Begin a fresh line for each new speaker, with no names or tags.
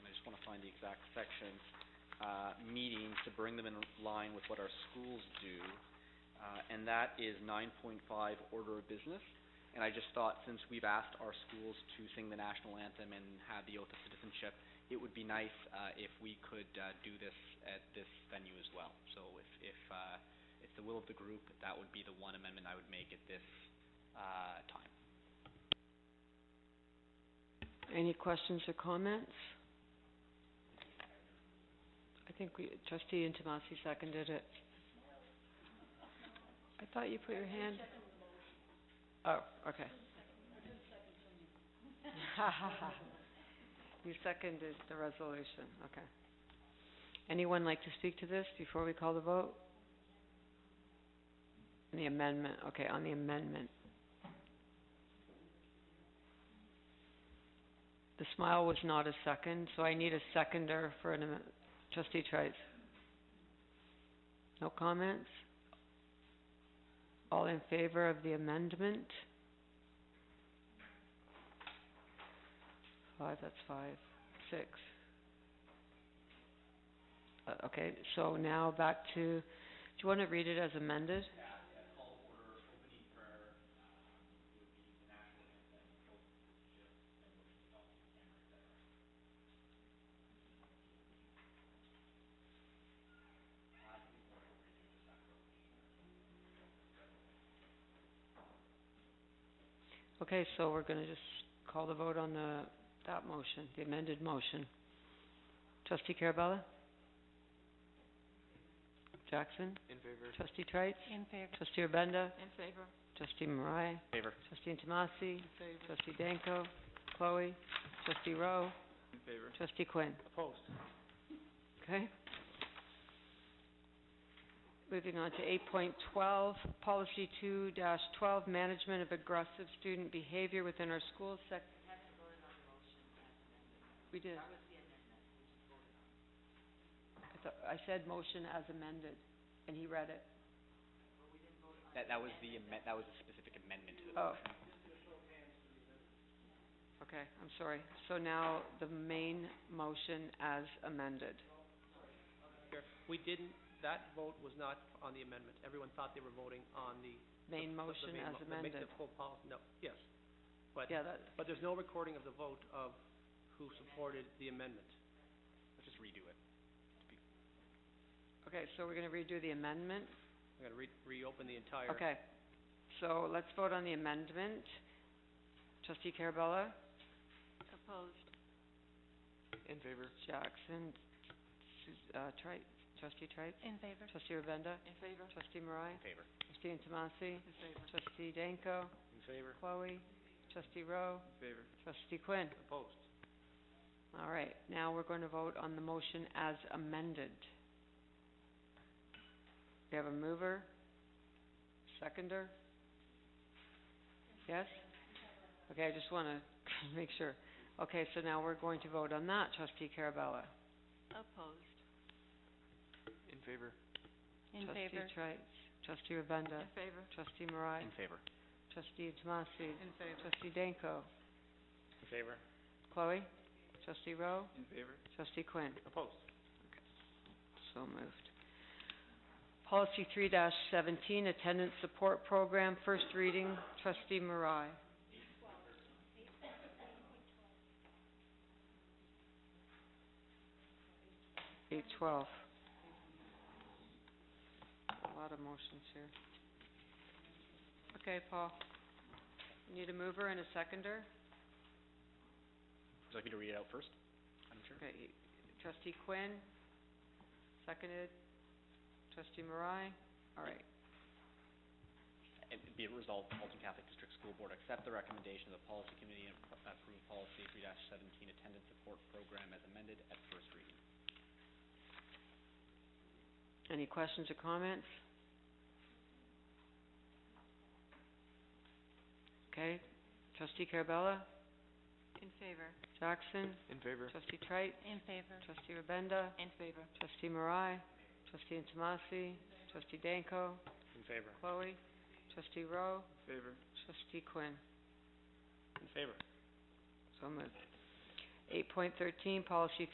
exact section, uh, meetings to bring them in line with what our schools do. Uh, and that is nine point five, order of business. And I just thought, since we've asked our schools to sing the national anthem and have the oath of citizenship, it would be nice, uh, if we could, uh, do this at this venue as well. So if, if, uh, it's the will of the group, that would be the one amendment I would make at this, uh, time.
Any questions or comments? I think we, trustee Intomasi seconded it. I thought you put your hand... Oh, okay. You seconded the resolution, okay. Anyone like to speak to this before we call the vote? The amendment, okay, on the amendment. The smile was not a second, so I need a seconder for an, amen- trustee Trice. No comments? All in favor of the amendment? Five, that's five, six. Uh, okay, so now back to, do you wanna read it as amended? Okay, so we're gonna just call the vote on the, that motion, the amended motion. Trustee Carabella? Jackson?
In favor?
Trustee Trites?
In favor.
Trustee Urbenda?
In favor.
Trustee Marai?
Favor.
Trustee Intomasi?
Favor.
Trustee Danko? Chloe? Trustee Rowe?
In favor.
Trustee Quinn?
Opposed.
Okay. Moving on to eight point twelve, policy two twelve, management of aggressive student behavior within our schools. sec- We did. I thought, I said motion as amended, and he read it.
That, that was the amen- that was a specific amendment to the
Oh. Okay, I'm sorry. So now the main motion as amended.
here. We didn't, that vote was not on the amendment. Everyone thought they were voting on the,
Main
the
motion
main
as
mo- the make
amended.
the full policy, no, yes.
Yeah, that,
But there's no recording of the vote of who supported the amendment.
Let's just redo it.
okay, so we're gonna redo the amendment.
I'm gonna re- reopen the entire.
Okay, so let's vote on the amendment. Trustee Carabella,
Opposed.
In favor.
Jackson, Sus- uh, Trite, Trustee Trite,
In favor.
Trustee Rabenda,
In favor.
Trustee Marai,
In favor.
Trustee Intomasi,
In favor.
Trustee Danko,
In favor.
Chloe, Trustee Rowe,
In favor.
Trustee Quinn.
Opposed.
All right, now we're going to vote on the motion as amended. We have a mover, seconder? Yes? Okay, I just want to make sure. Okay, so now we're going to vote on that, trustee Carabella.
Opposed.
In favor.
In favor.
Trustee Trice, trustee Rabenda,
In favor.
trustee Marai,
In favor.
trustee Tomasi,
In favor.
trustee Danko,
In favor.
Chloe, trustee Rowe,
In favor.
trustee Quinn.
Opposed.
So moved. Policy three seventeen, attendance support program, first reading, trustee Marai. Eight twelve. A lot of motions here. Okay, Paul. Need a mover and a seconder?
Would you like me to read it out first? Madam Chair?
Okay, trustee Quinn, seconded, trustee Marai, all right.
And be it resolved, the Halton Catholic District School Board accept the recommendation of the policy committee and appro- approve policy three seventeen attendance support program as amended at first reading.
Any questions or comments? Okay, trustee Carabella,
In favor.
Jackson,
In favor.
trustee Trice,
In favor.
trustee Rabenda,
In favor.
trustee Marai, trustee Intomasi, trustee Danko,
In favor.
Chloe, trustee Rowe,
In favor.
trustee Quinn.
In favor.
So moved. Eight point thirteen, policy